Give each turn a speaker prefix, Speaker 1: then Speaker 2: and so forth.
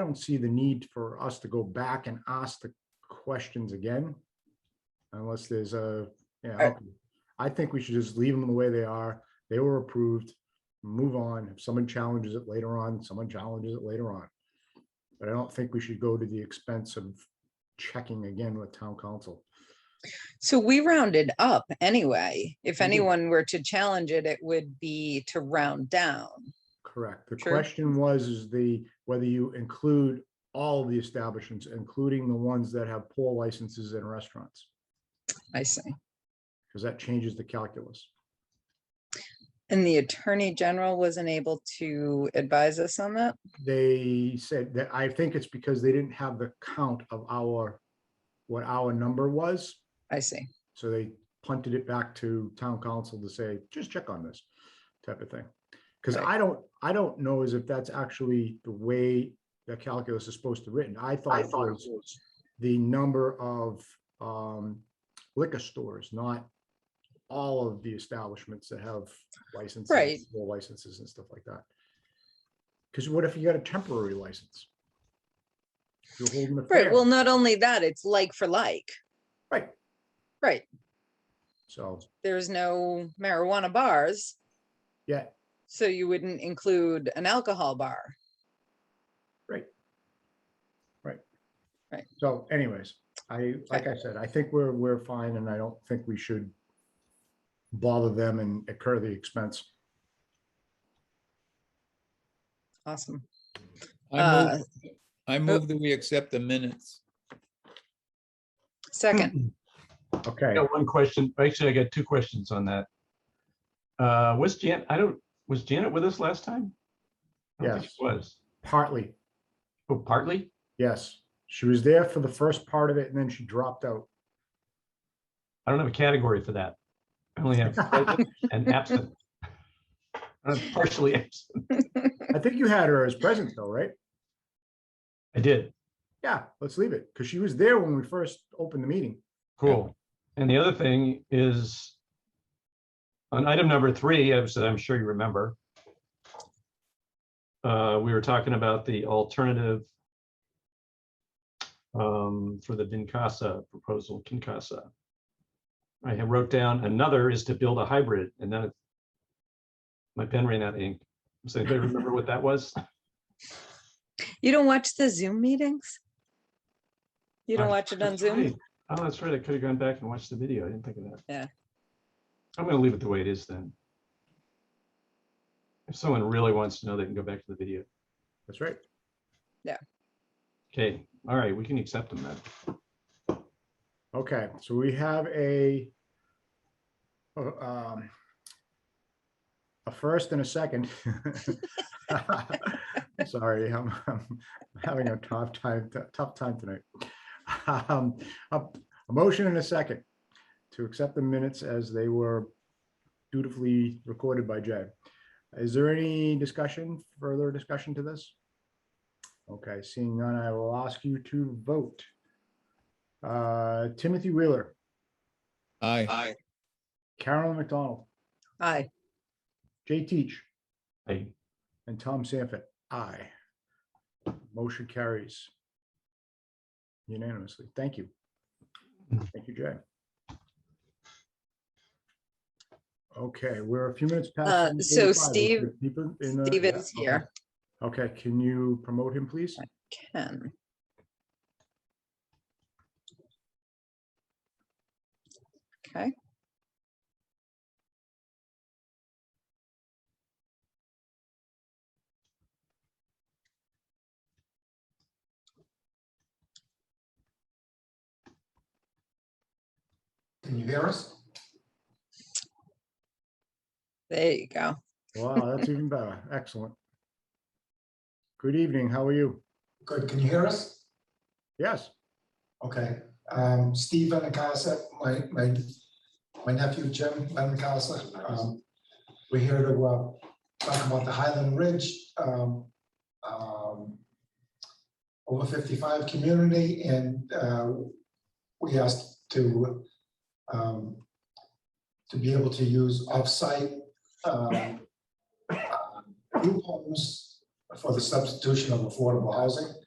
Speaker 1: I don't see the need for us to go back and ask the questions again. Unless there's a, yeah,
Speaker 2: Right.
Speaker 1: okay. I think we should just leave them the way they are. They were approved. Move on. If someone challenges it later on, someone challenges it later on. But I don't think we should go to the expense of checking again with town council.
Speaker 2: So we rounded up anyway. If
Speaker 1: We did.
Speaker 2: anyone were to challenge it, it would be to round down.
Speaker 1: Correct. The
Speaker 2: Sure.
Speaker 1: question was, is the, whether you include all the establishments, including the ones that have poor licenses and restaurants,
Speaker 2: I see.
Speaker 1: because that changes the calculus.
Speaker 2: And the attorney general wasn't able to advise us on that.
Speaker 1: they said that, I think it's because they didn't have the count of our, what our number was.
Speaker 2: I see.
Speaker 1: So they punted it back to town council to say, just check on this type of thing. Because
Speaker 2: Right.
Speaker 1: I don't, I don't know as if that's actually the way the calculus is supposed to written. I thought it was the number of um, liquor stores, not all of the establishments that have licenses,
Speaker 2: Right.
Speaker 1: full licenses and stuff like that. Because what if you got a temporary license? You're holding a
Speaker 2: Right.
Speaker 1: fair,
Speaker 2: Well, not only that, it's like for like.
Speaker 1: right?
Speaker 2: Right.
Speaker 1: So,
Speaker 2: There's no marijuana bars,
Speaker 1: yeah,
Speaker 2: so you wouldn't include an alcohol bar.
Speaker 1: so anyways, I, like I said, I think we're, we're fine and I don't think we should bother them and incur the expense. Hmm.
Speaker 2: Awesome.
Speaker 3: I
Speaker 2: Uh,
Speaker 3: move, I move that we accept the minutes.
Speaker 2: Second,
Speaker 1: Okay,
Speaker 4: I got one question. Actually, I got two questions on that. Uh, was Jan, I don't, was Janet with us last time? I don't think
Speaker 1: Yes.
Speaker 4: she Was,
Speaker 1: partly,
Speaker 4: oh, partly?
Speaker 1: yes. She was there for the first part of it and then she dropped out.
Speaker 4: I don't have a category for that. I only have present and absent. I'm Partially absent.
Speaker 1: I think you had her as present though, right?
Speaker 4: I did.
Speaker 1: Yeah, let's leave it, because she was there when we first opened the meeting.
Speaker 4: Cool. And the other thing is on item number three, as I'm sure you remember, uh, we were talking about the alternative um, for the Vincasa proposal, Kincasa. I had wrote down another is to build a hybrid and then it- my pen ran out of ink. So anybody remember what that was?
Speaker 2: you don't watch the Zoom meetings? You don't
Speaker 4: Uh,
Speaker 2: watch it on
Speaker 4: that's
Speaker 2: Zoom?
Speaker 4: right. Oh, that's right. I could have gone back and watched the video. I didn't think of that.
Speaker 2: Yeah.
Speaker 4: I'm gonna leave it the way it is then. If someone really wants to know, they can go back to the video.
Speaker 1: That's right.
Speaker 4: Okay, all right, we can accept them then.
Speaker 1: Okay, so we have a uh, um, a first and a second. Sorry, I'm, I'm having a tough time, tough time tonight. Um, A a motion and a second to accept the minutes as they were dutifully recorded by Jay. Is there any discussion, further discussion to this? Okay, seeing none, I will ask you to vote. Uh, Timothy Wheeler,
Speaker 3: Aye.
Speaker 1: Carolyn McDonald,
Speaker 2: Aye.
Speaker 1: Jay Teach,
Speaker 4: Hey,
Speaker 1: and Tom Sanford. Aye. Motion carries unanimously. Thank you. Thank you, Jay. Okay, we're a few minutes past.
Speaker 2: Uh,
Speaker 1: 7:45.
Speaker 2: so
Speaker 1: Is
Speaker 2: Steve-
Speaker 1: there people in the-
Speaker 2: Steve
Speaker 1: yeah,
Speaker 2: is
Speaker 1: okay.
Speaker 2: here.
Speaker 1: Okay, can you promote him, please?
Speaker 2: Ken. Okay.
Speaker 5: Can you hear us?
Speaker 2: There you go.
Speaker 1: Wow, that's even better. Excellent. Good evening. How are you?
Speaker 5: Good, can you hear us?
Speaker 1: Yes,
Speaker 5: Okay, um, Steve Benacasa, my, my, my nephew Jim Benacasa. um, We're here to, uh, talk about the Highland Ridge, um, um, over fifty-five community and, uh, we asked to, um, to be able to use off-site, um, uh, group homes for the substitution of affordable housing.